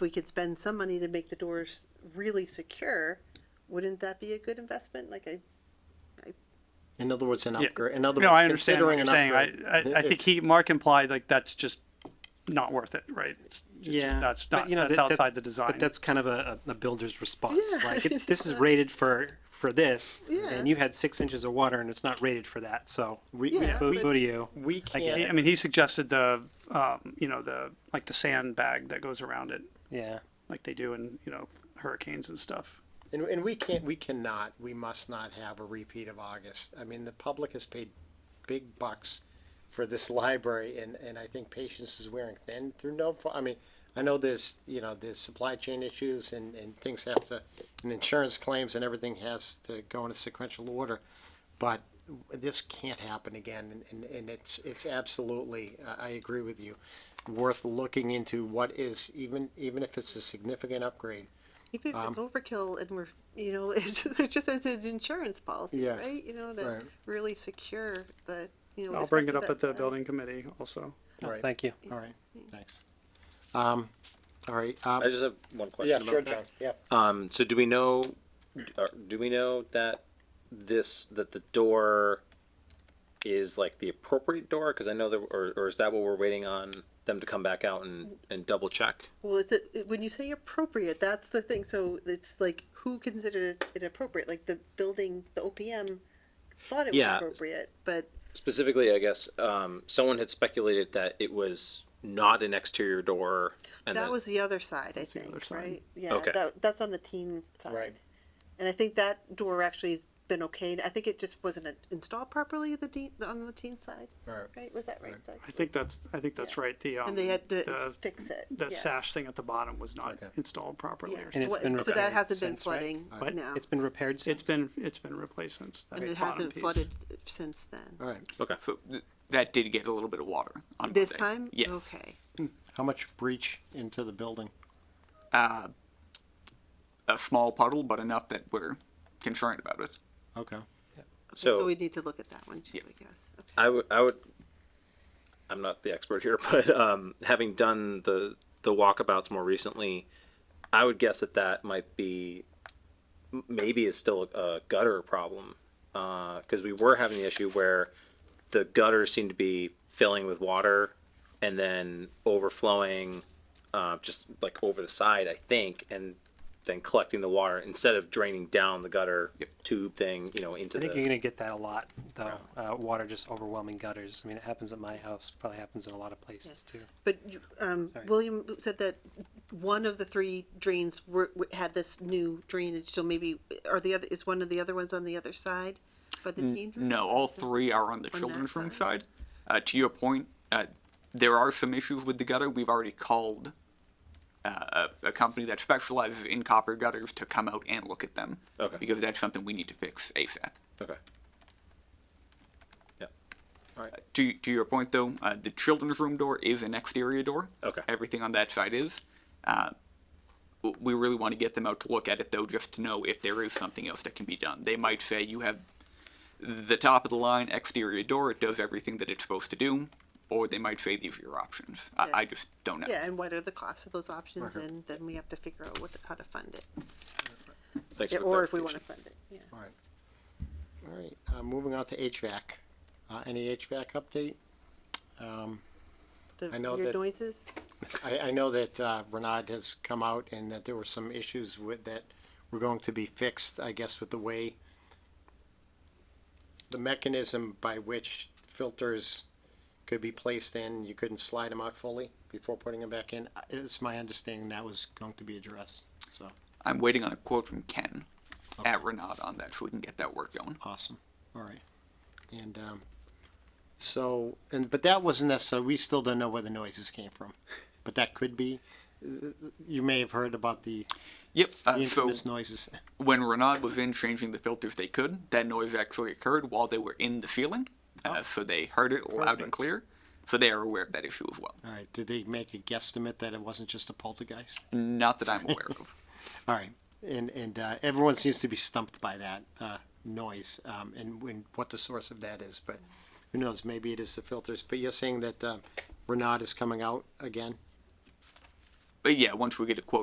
if we could spend some money to make the doors really secure, wouldn't that be a good investment? Like I, In other words, an Yeah. upgrade, in other No, I words, understand what considering you're an saying. I, upgrade. I, I think it's- he, Mark implied like that's just not worth it, right? It's- it's- Yeah, That's but, not, you know, that's that- that- outside the design. But that's kind of a, a a builder's response. Yeah. Like, it, this is rated for, for this, Yeah. and you had six inches of water and it's not rated for that, so. We- Yeah, Boo but- boo to you. We He- I can't, mean, he suggested the, um, you know, the, like the sandbag that goes around it, Yeah. like they do in, you know, hurricanes and stuff. and, and we can't, we cannot, we must not have a repeat of August. I mean, the public has paid big bucks for this library and, and I think patience is wearing thin through no, fa- I mean, I know there's, you know, there's supply chain issues and, and things have to, and insurance claims and everything has to go in a sequential order. But this can't happen again, and, and, and it's, it's absolutely, I, I agree with you, worth looking into what is, even, even if it's a significant upgrade. even if it's Um, overkill and we're, you know, it's, it's just as an insurance policy, Yeah, right? You know, to right. really secure the, you know. I'll bring it up especially at the that- building committee also. No, Right. Oh, Thank you. All right, thanks. Um, all right, um, I just have one question. yeah, about sure, that. John, yeah. Um, so do we know, or do we know that this, that the door is like the appropriate door? Cause I know that, or, or is that what we're waiting on them to come back out and, and double check? Well, it's a, it- when you say appropriate, that's the thing. So it's like who considers it appropriate? Like the building, the OPM thought it Yeah. was appropriate, but Specifically, I guess, um, someone had speculated that it was not an exterior door. and that was the other side, I the other think, side. right? Yeah, Okay. that, that's on the teen side. Right. And I think that door actually has been okay. I think it just wasn't uh, installed properly the teen, on the teen side. Right. Was that right, Doug? I think that's, I think that's Yeah. right. The, um, And they had to the- fix it. The yeah. sash thing at the bottom was not Okay. installed proproperly. Yeah. or And something. it's What- so been that repaired hasn't been since, right? flooding But now, it's been repaired It's since. been, it's been replaced since. that and it bottom hasn't piece. flooded since then. All right, Okay. So th- that did get a little bit of water on This Monday. time, Yeah, okay. how much breach into the building? a small puddle, but enough that we're concerned about it. Okay. So, So we need to look at that one too, Yeah. I guess. Okay. I would, I would, I'm not the expert here, but um, having done the the walkabouts more recently, I would guess that that might be m- maybe is still a gutter problem because we were having the issue where the gutters seemed to be filling with water and then overflowing uh, just like over the side, I think, and then collecting the water instead of draining down the gutter Yep. tube thing, you know, into I think the. you're gonna get that a lot, though, uh, water just overwhelming gutters. I mean, it happens at my house, probably happens in a lot of places too. But you- um, Sorry. William said that one of the three drains were, w- had this new drainage, so maybe, are the other, is one of the other ones on the other side? By the teen? room? No, all three are on the that children's room side. side. Uh, to your point, uh, there are some issues with the gutter. We've already called uh, a, a company that specializes in copper gutters to come out and look at them. Okay. Because that's something we need to fix ASAP. okay. Yeah. To, to your point, though, uh, the children's room door is an exterior door. Okay. Everything on that side is. Uh, w- we really want to get them out to look at it, though, just to know if there is something else that can be done. They might say you have the top of the line exterior door, it does everything that it's supposed to do, or they might say these are your options. Yeah. I, I just don't know. Yeah, and what are the costs of those options, and then we have to figure out what, how to fund it, Thanks Yeah, for the or if we clarification. wanna fund it, yeah. All right. All right, uh, moving on to HVAC. Uh, any HVAC update? The- I know Your that- noises, I, I know that, uh, Renard has come out and that there were some issues with, that were going to be fixed, I guess, with the way the mechanism by which filters could be placed in, you couldn't slide them out fully before putting them back in. Uh, It's my understanding that was going to be addressed, so, I'm waiting on a quote from Ken at Renaud on that so we can get that work going. awesome, all right. And, um, so, and, but that wasn't necessarily, we still don't know where the noises came from, but that could be, uh, you may have heard about the Yep. the Uh, so infamous noises. when Renaud was in changing the filters, they could. That noise actually occurred while they were in the ceiling, uh, so they heard it loud Perfect. and clear. So they are aware of that issue as well. All right. Did they make a guesstimate that it wasn't just a poltergeist? Not that I'm aware of. All right. And and uh, everyone seems to be stumped by that uh, noise um, and, and what the source of that is. But who knows? Maybe it is the filters. But you're saying that uh, Renaud is coming out again. but yeah, once we get a quote